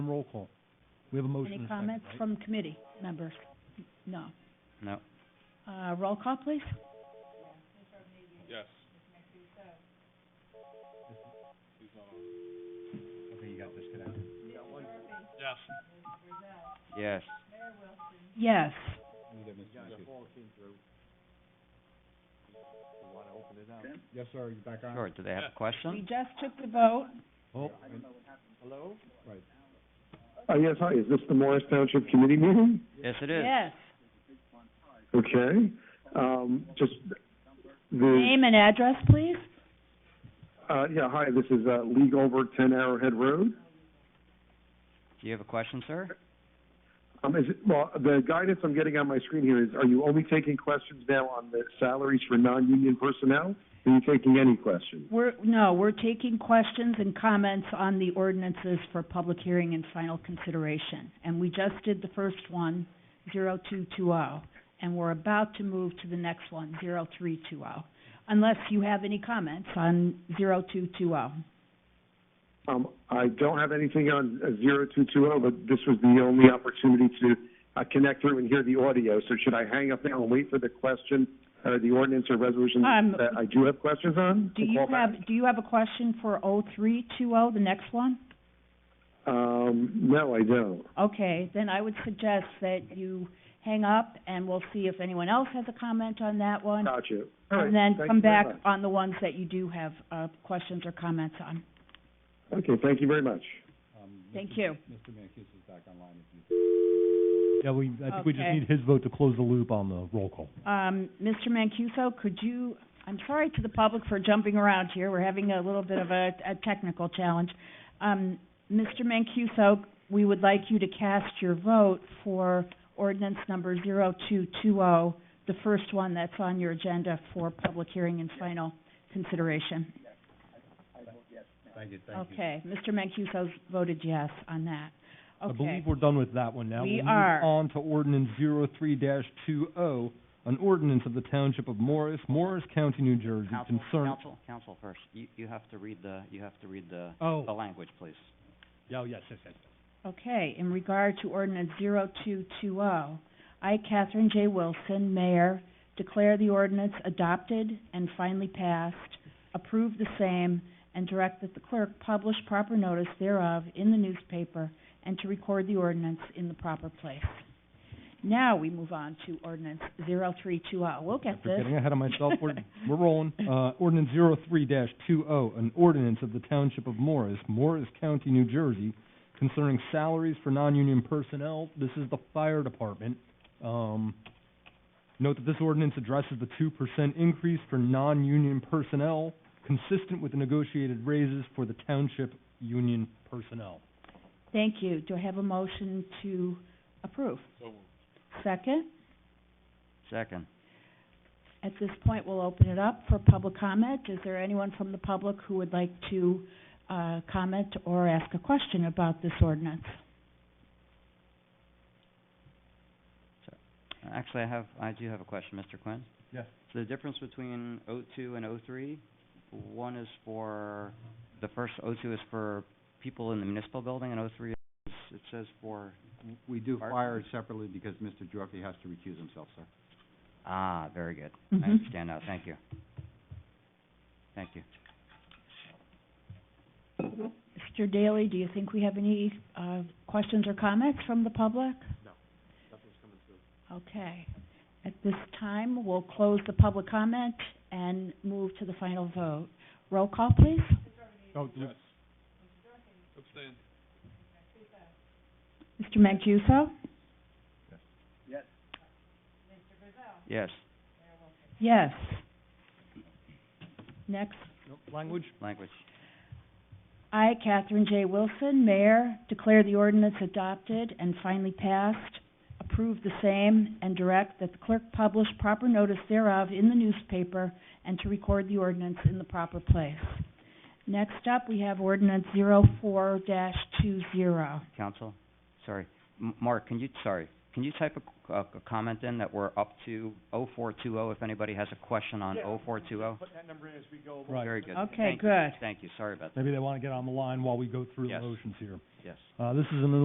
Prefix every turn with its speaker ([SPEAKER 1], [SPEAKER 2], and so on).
[SPEAKER 1] roll call. We have a motion and
[SPEAKER 2] Any
[SPEAKER 1] a second,
[SPEAKER 2] comments
[SPEAKER 1] right?
[SPEAKER 2] from committee members? No.
[SPEAKER 3] No.
[SPEAKER 2] Uh, roll call, please.
[SPEAKER 4] Yes.
[SPEAKER 3] Okay, you got disconnected.
[SPEAKER 4] Yes.
[SPEAKER 3] Yes.
[SPEAKER 2] Yes.
[SPEAKER 1] Yes, sir, you back on?
[SPEAKER 3] Sure, do they have a
[SPEAKER 2] We
[SPEAKER 3] question?
[SPEAKER 2] just took the vote.
[SPEAKER 1] Oh,
[SPEAKER 5] Uh, yes, hi, is this the Morris Township Committee meeting?
[SPEAKER 3] Yes, it is.
[SPEAKER 2] Yes.
[SPEAKER 5] Okay, um, just the,
[SPEAKER 2] Name and address, please.
[SPEAKER 5] uh, yeah, hi, this is, uh, Lee Goldberg, ten Arrowhead Road.
[SPEAKER 3] Do you have a question, sir?
[SPEAKER 5] Um, is it, well, the guidance I'm getting on my screen here is, are you only taking questions now on the salaries for non-union personnel? Are you taking any questions?
[SPEAKER 2] We're, no, we're taking questions and comments on the ordinances for public hearing and final consideration. And we just did the first one, zero two two oh, and we're about to move to the next one, zero three two oh. Unless you have any comments on zero two two oh.
[SPEAKER 5] Um, I don't have anything on zero two two oh, but this was the only opportunity to, uh, connect through and hear the audio. So should I hang up now and wait for the question, or the ordinance or resolution
[SPEAKER 2] Um,
[SPEAKER 5] that I do have questions on?
[SPEAKER 2] Do
[SPEAKER 5] and
[SPEAKER 2] you
[SPEAKER 5] call back?
[SPEAKER 2] have, do you have a question for oh three two oh, the next one?
[SPEAKER 5] Um, no, I don't.
[SPEAKER 2] Okay, then I would suggest that you hang up and we'll see if anyone else has a comment on that one.
[SPEAKER 5] Gotcha. Uh, All right,
[SPEAKER 2] And then
[SPEAKER 5] thank
[SPEAKER 2] come
[SPEAKER 5] you very
[SPEAKER 2] back on the ones that you do have, uh, questions or comments on.
[SPEAKER 5] much. Okay, thank you very much.
[SPEAKER 1] um,
[SPEAKER 2] Thank you.
[SPEAKER 1] Mr. Mancuso is back online if you. Yeah, we, I think we just
[SPEAKER 2] Okay.
[SPEAKER 1] need his vote to close the loop on the roll call.
[SPEAKER 2] Um, Mr. Mancuso, could you, I'm sorry to the public for jumping around here, we're having a little bit of a, a technical challenge. Um, Mr. Mancuso, we would like you to cast your vote for ordinance number zero two two oh, the first one that's on your agenda for public hearing and final consideration.
[SPEAKER 3] Thank you,
[SPEAKER 2] Okay, Mr. Mancuso's voted yes on that.
[SPEAKER 1] I
[SPEAKER 2] Okay,
[SPEAKER 1] believe we're done with that one now.
[SPEAKER 2] We
[SPEAKER 1] We'll move
[SPEAKER 2] are.
[SPEAKER 1] on to ordinance 03-20, oh, an ordinance of the Township of Morris, Morris County, New Jersey,
[SPEAKER 3] Council,
[SPEAKER 1] concern.
[SPEAKER 3] council, council first. You, you have to read the, you have to read the, the
[SPEAKER 1] Oh,
[SPEAKER 3] language, please.
[SPEAKER 1] yeah, oh, yes, yes, yes.
[SPEAKER 2] okay, in regard to ordinance zero two two oh, I, Catherine J. Wilson, Mayor, declare the ordinance adopted and finally passed, approve the same, and direct that the clerk publish proper notice thereof in the newspaper and to record the ordinance in the proper place. Now we move on to ordinance zero three two oh. We'll get
[SPEAKER 1] We're
[SPEAKER 2] this.
[SPEAKER 1] getting ahead of myself. We're, we're rolling. Uh, ordinance zero three dash two oh, an ordinance of the Township of Morris, Morris County, New Jersey, concerning salaries for non-union personnel. This is the fire department. Um, note that this ordinance addresses the two percent increase for non-union personnel, consistent with the negotiated raises for the township union personnel.
[SPEAKER 2] Thank you. Do I have a motion to approve?
[SPEAKER 4] So moved.
[SPEAKER 2] Second?
[SPEAKER 3] Second.
[SPEAKER 2] At this point, we'll open it up for public comment. Is there anyone from the public who would like to, uh, comment or ask a question about this ordinance?
[SPEAKER 3] Actually, I have, I do have a question, Mr. Quinn.
[SPEAKER 1] Yes.
[SPEAKER 3] So the difference between O two and O three, one is for, the first O two is for people in the municipal building, and O three is, it says for,
[SPEAKER 6] We do
[SPEAKER 3] Mark?
[SPEAKER 6] fire separately because Mr. Drucker has to recuse himself, sir.
[SPEAKER 3] ah, very good. I
[SPEAKER 2] Mhm.
[SPEAKER 3] understand now, thank you. Thank you.
[SPEAKER 2] Mr. Daly, do you think we have any, uh, questions or comments from the public? No, nothing's coming through. Okay. At this time, we'll close the public comment and move to the final vote. Roll call, please.
[SPEAKER 1] Oh, do-
[SPEAKER 4] Abstain.
[SPEAKER 2] Mr. Mancuso?
[SPEAKER 3] Yes,
[SPEAKER 2] Yes. Next,
[SPEAKER 1] no, language?
[SPEAKER 3] language.
[SPEAKER 2] I, Catherine J. Wilson, Mayor, declare the ordinance adopted and finally passed, approve the same, and direct that the clerk publish proper notice thereof in the newspaper and to record the ordinance in the proper place. Next up, we have ordinance 04-20.
[SPEAKER 3] Council, sorry. M- Mark, can you, sorry, can you type a, a- a comment in that we're up to O four two O if anybody has a question on O four two O?
[SPEAKER 1] Right.
[SPEAKER 3] Very good.
[SPEAKER 2] Okay,
[SPEAKER 3] Thank you.
[SPEAKER 2] good.
[SPEAKER 3] Thank you, sorry about that,
[SPEAKER 1] Maybe they want to get on the line while we go through the
[SPEAKER 3] Yes.
[SPEAKER 1] motions here.
[SPEAKER 3] yes.
[SPEAKER 1] Uh, this is an